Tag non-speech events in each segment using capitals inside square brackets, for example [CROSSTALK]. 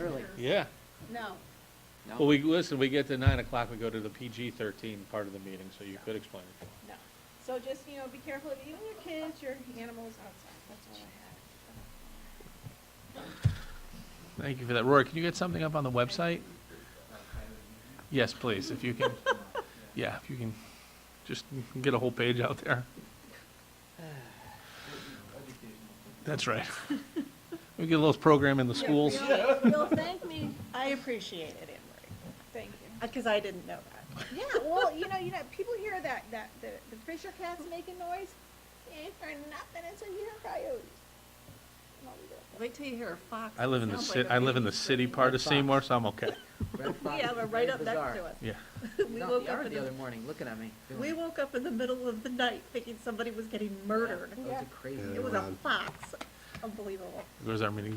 Really? Yeah. No. No? Well, we, listen, we get to nine o'clock, we go to the PG thirteen part of the meeting, so you could explain it. No. So just, you know, be careful of even your kids, your animals outside. That's all I have. Thank you for that. Rory, can you get something up on the website? Yes, please, if you [LAUGHS] can, yeah, if you can, just get a whole page out there. That's right. We get a little program in the schools. You'll- You'll thank me. I appreciate it, Anne Thank you. Marie, because I didn't know that. Yeah, well, you know, you know, people hear that, that, the, the Fisher cat's making noise. They ain't for nothing until you hear coyotes. No, we don't. [LAUGHS] Wait till you hear a fox. I live in the Sounds city, like a I live in the baby. city part of Seymour, so I'm okay. Red We foxes have are it right very up next bizarre. to us. Yeah, We No, woke they up are in the other the, morning, looking at me. doing we it. woke up in the middle of the night thinking somebody was getting murdered. That was a crazy. It was a fox. Unbelievable. there goes our meeting.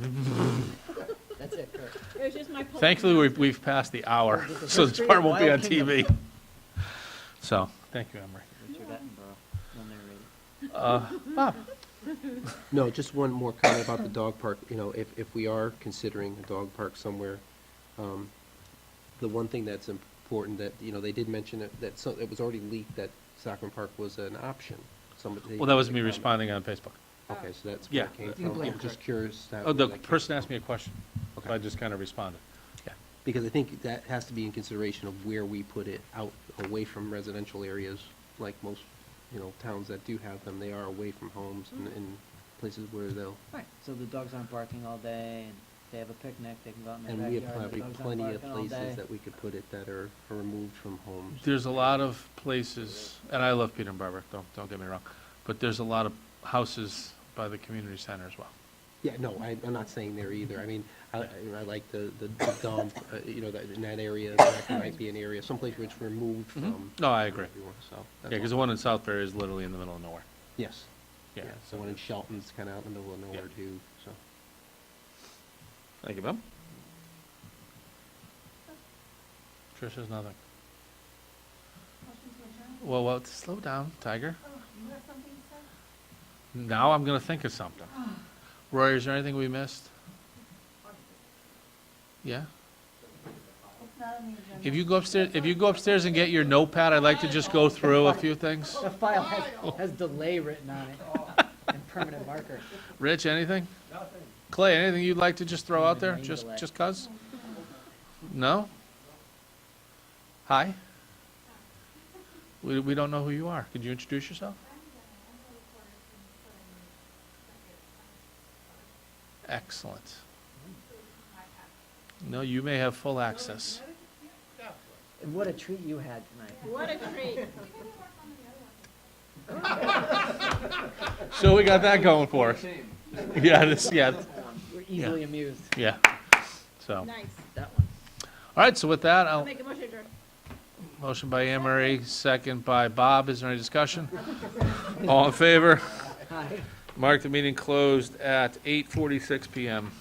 That's it, [LAUGHS] Kurt. It was just my. polite Thankfully, we've, we've passed the hour, [LAUGHS] so this part won't be on TV. So, thank you, Emery. Richard Attenborough. I'll narrate it. Uh, Bob? No, just one more comment about the dog park. You know, if, if we are considering a dog park somewhere, um, the one thing that's important that, you know, they did mention that, that so, it was already leaked that Sacram Park was an option. Somebody. Well, that was me responding on Facebook. Okay, so that's where it Yeah. came You can from. blame I'm just Kirk. curious. how- Oh, the where that came person from. asked me a question, so I just kind of responded. Yeah, Because I think that has to be in consideration of where we put it out, away from residential areas, like most, you know, towns that do have them. They are away from homes and, and places where they'll Right, so the dogs aren't barking all day, and they have a picnic, they can go out in And their we have backyard, the probably dogs aren't plenty of barking all day. places that we could put it that are are removed from homes. There's a lot of places, and I love Peter and Barbara, don't, don't get me wrong, but there's a lot of houses by the community center as well. Yeah, no, I, I'm not saying there either. I mean, I, I I like the, the the dump, uh, you know, that, in that area, that might be an area, someplace which we're moved from. Mm-hmm. Um, No, I agree. everyone, So. Yeah, that's because the all. one in Southbury is literally in the middle of nowhere. Yes. Yeah. The one in Shelton's kind of out in the middle of nowhere Yeah. too, so. Thank you, Bob. Trish has nothing. Well, well, slow down, Tiger. Now I'm gonna think of something. Rory, is there anything we missed? Yeah? If you go upstairs, if you go upstairs and get your notepad, I'd like to just go through a few things. Oh, The file has, has delay written on it, and permanent marker. Rich, anything? Nothing. Clay, anything you'd like to just throw out there, Name just, delay. just 'cause? No? Hi? We, we don't know who you are. Could you introduce yourself? Excellent. No, you may have full access. And what a treat you had tonight. What a treat. So we got that going for us. [LAUGHS] Yeah, this, yeah, We're easily amused. yeah. So, all Nice. That one. right, so with that, I'll I'll, make a motion to adjourn. Motion by Anne Marie, second by Bob. Is there any discussion? All in favor? Hi. Mark the meeting closed at 8:46 PM.